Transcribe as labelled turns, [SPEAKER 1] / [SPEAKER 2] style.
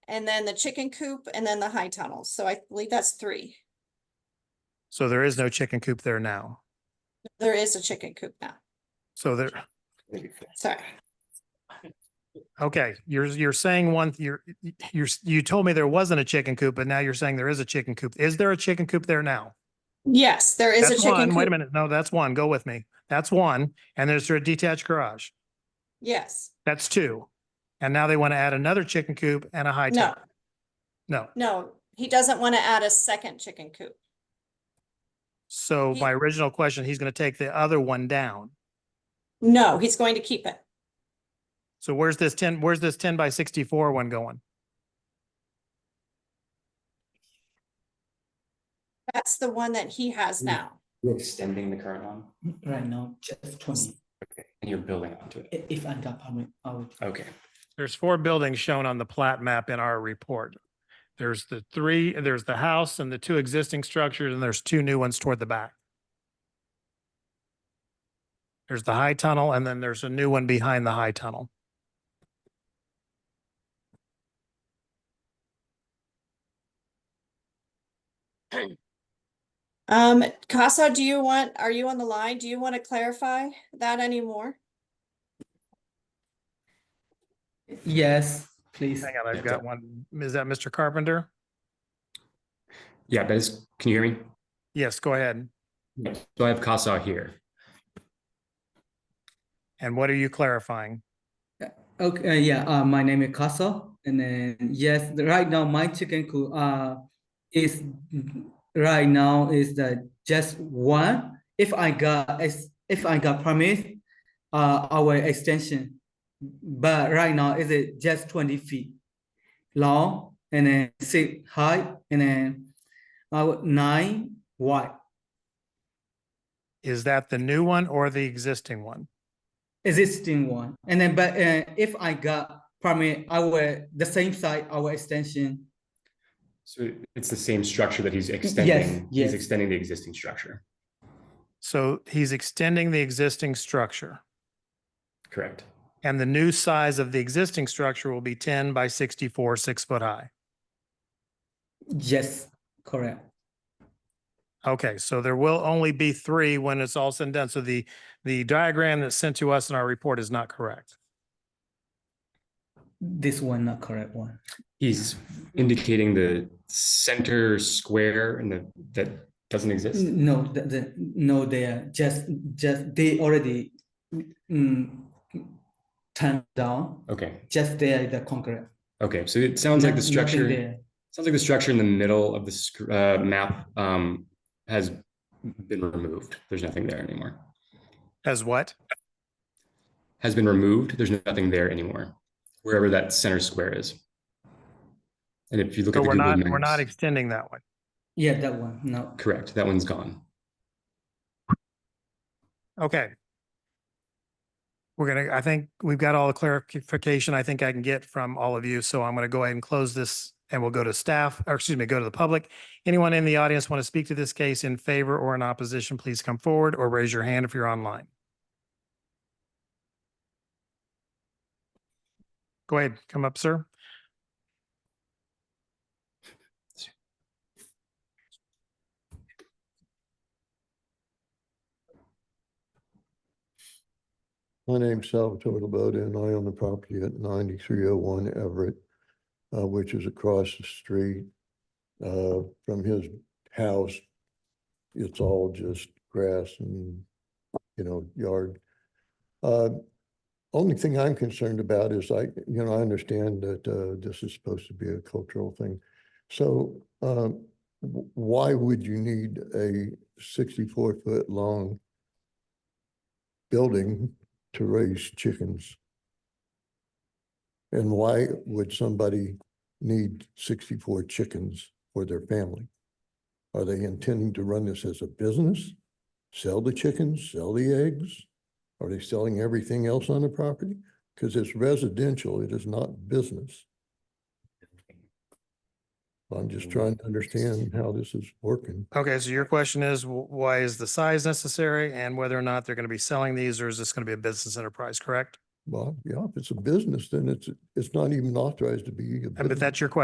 [SPEAKER 1] and then the chicken coop, and then the high tunnels. So I believe that's three.
[SPEAKER 2] So there is no chicken coop there now.
[SPEAKER 1] There is a chicken coop now.
[SPEAKER 2] So there,
[SPEAKER 1] Sorry.
[SPEAKER 2] okay, you're, you're saying one, you're, you're, you told me there wasn't a chicken coop, but now you're saying there is a chicken coop. Is there a chicken coop there now?
[SPEAKER 1] Yes, there is a
[SPEAKER 2] That's
[SPEAKER 1] chicken
[SPEAKER 2] one. Wait a
[SPEAKER 1] coop.
[SPEAKER 2] minute. No, that's one. Go with me. That's one. And there's a detached garage.
[SPEAKER 1] Yes.
[SPEAKER 2] That's two. And now they want to add another chicken coop and a high
[SPEAKER 1] No,
[SPEAKER 2] tunnel. No.
[SPEAKER 1] no, he doesn't want to add a second chicken coop.
[SPEAKER 2] So
[SPEAKER 1] He-
[SPEAKER 2] my original question, he's going to take the other one down.
[SPEAKER 1] No, he's going to keep it.
[SPEAKER 2] So where's this ten, where's this ten by sixty-four one going?
[SPEAKER 1] That's the one that he has
[SPEAKER 2] Hmm.
[SPEAKER 3] Mm.
[SPEAKER 1] now.
[SPEAKER 3] You're extending the current one
[SPEAKER 4] Right now, just twenty,
[SPEAKER 3] and you're building onto it.
[SPEAKER 4] i- if I got permit, I would,
[SPEAKER 3] Okay,
[SPEAKER 2] There's four buildings shown on the plat map in our report. There's the three, there's the house and the two existing structures, and there's two new ones toward the back. There's the high tunnel, and then there's a new one behind the high tunnel.
[SPEAKER 1] Um, Casa, do you want, are you on the line? Do you want to clarify that anymore?
[SPEAKER 4] yes, please.
[SPEAKER 2] Hang on, I've
[SPEAKER 3] Yeah,
[SPEAKER 2] got
[SPEAKER 3] so-
[SPEAKER 2] one. Is that Mr. Carpenter?
[SPEAKER 3] yeah, but it's, can you hear me?
[SPEAKER 2] Yes, go ahead.
[SPEAKER 3] Yep. So I have CASA here.
[SPEAKER 2] And what are you clarifying?
[SPEAKER 4] Okay, yeah, uh, my name is Casa, and then, yes, the- right now, my chicken coop, uh, is, right now is the just one. If I got, ex- if I got permit, uh, our extension, but right now, is it just twenty feet long, and then six high, and then, uh, nine wide.
[SPEAKER 2] Is that the new one or the existing one?
[SPEAKER 4] existing one and then but uh, if i got permit i will the same site our extension
[SPEAKER 3] So it's the same structure that he's extending,
[SPEAKER 4] yes.
[SPEAKER 3] he's extending the existing structure,
[SPEAKER 2] So he's extending the existing structure.
[SPEAKER 3] correct?
[SPEAKER 2] And the new size of the existing structure will be ten by sixty-four, six foot high.
[SPEAKER 4] yes correct
[SPEAKER 2] Okay, so there will only be three when it's all said and done. So the, the diagram that's sent to us in our report is not correct.
[SPEAKER 4] this one not correct one
[SPEAKER 3] He's indicating the center square and the, that doesn't exist.
[SPEAKER 4] N- no the, the no they are just just they already mm, turned down
[SPEAKER 3] Okay,
[SPEAKER 4] just there the concrete
[SPEAKER 3] okay, so it sounds like the
[SPEAKER 4] Not- nothing
[SPEAKER 3] structure,
[SPEAKER 4] there.
[SPEAKER 3] sounds like the structure in the middle of this uh, map um, has been removed. There's nothing there anymore.
[SPEAKER 2] As what?
[SPEAKER 3] Has been removed. There's nothing there anymore, wherever that center square is. And if you look
[SPEAKER 2] So
[SPEAKER 3] at the
[SPEAKER 2] we're
[SPEAKER 3] Google
[SPEAKER 2] not, we're not
[SPEAKER 3] Maps-
[SPEAKER 2] extending that one.
[SPEAKER 4] yeah that one no
[SPEAKER 3] Correct, that one's gone.
[SPEAKER 2] Okay. We're gonna, I think we've got all the clarification I think I can get from all of you, so I'm gonna go ahead and close this and we'll go to staff, or excuse me, go to the public. Anyone in the audience want to speak to this case in favor or in opposition, please come forward or raise your hand if you're online. Go ahead, come up, sir.
[SPEAKER 5] My name's Salvatore Laboda and I own the property at ninety-three oh one Everett, uh, which is across the street, uh, from his house. It's all just grass and, you know, yard. Uh, only thing I'm concerned about is I, you know, I understand that, uh, this is supposed to be a cultural thing. So, um, w- why would you need a sixty-four foot long building to raise chickens? And why would somebody need sixty-four chickens for their family? Are they intending to run this as a business? Sell the chickens, sell the eggs? Are they selling everything else on the property? Because it's residential, it is not business. I'm just trying to understand how this is working.
[SPEAKER 2] Okay, so your question is, wh- why is the size necessary and whether or not they're gonna be selling these, or is this gonna be a business enterprise, correct?
[SPEAKER 5] Well, yeah, if it's a business, then it's, it's not even authorized to be. a
[SPEAKER 2] And but
[SPEAKER 5] business.
[SPEAKER 2] that's your question.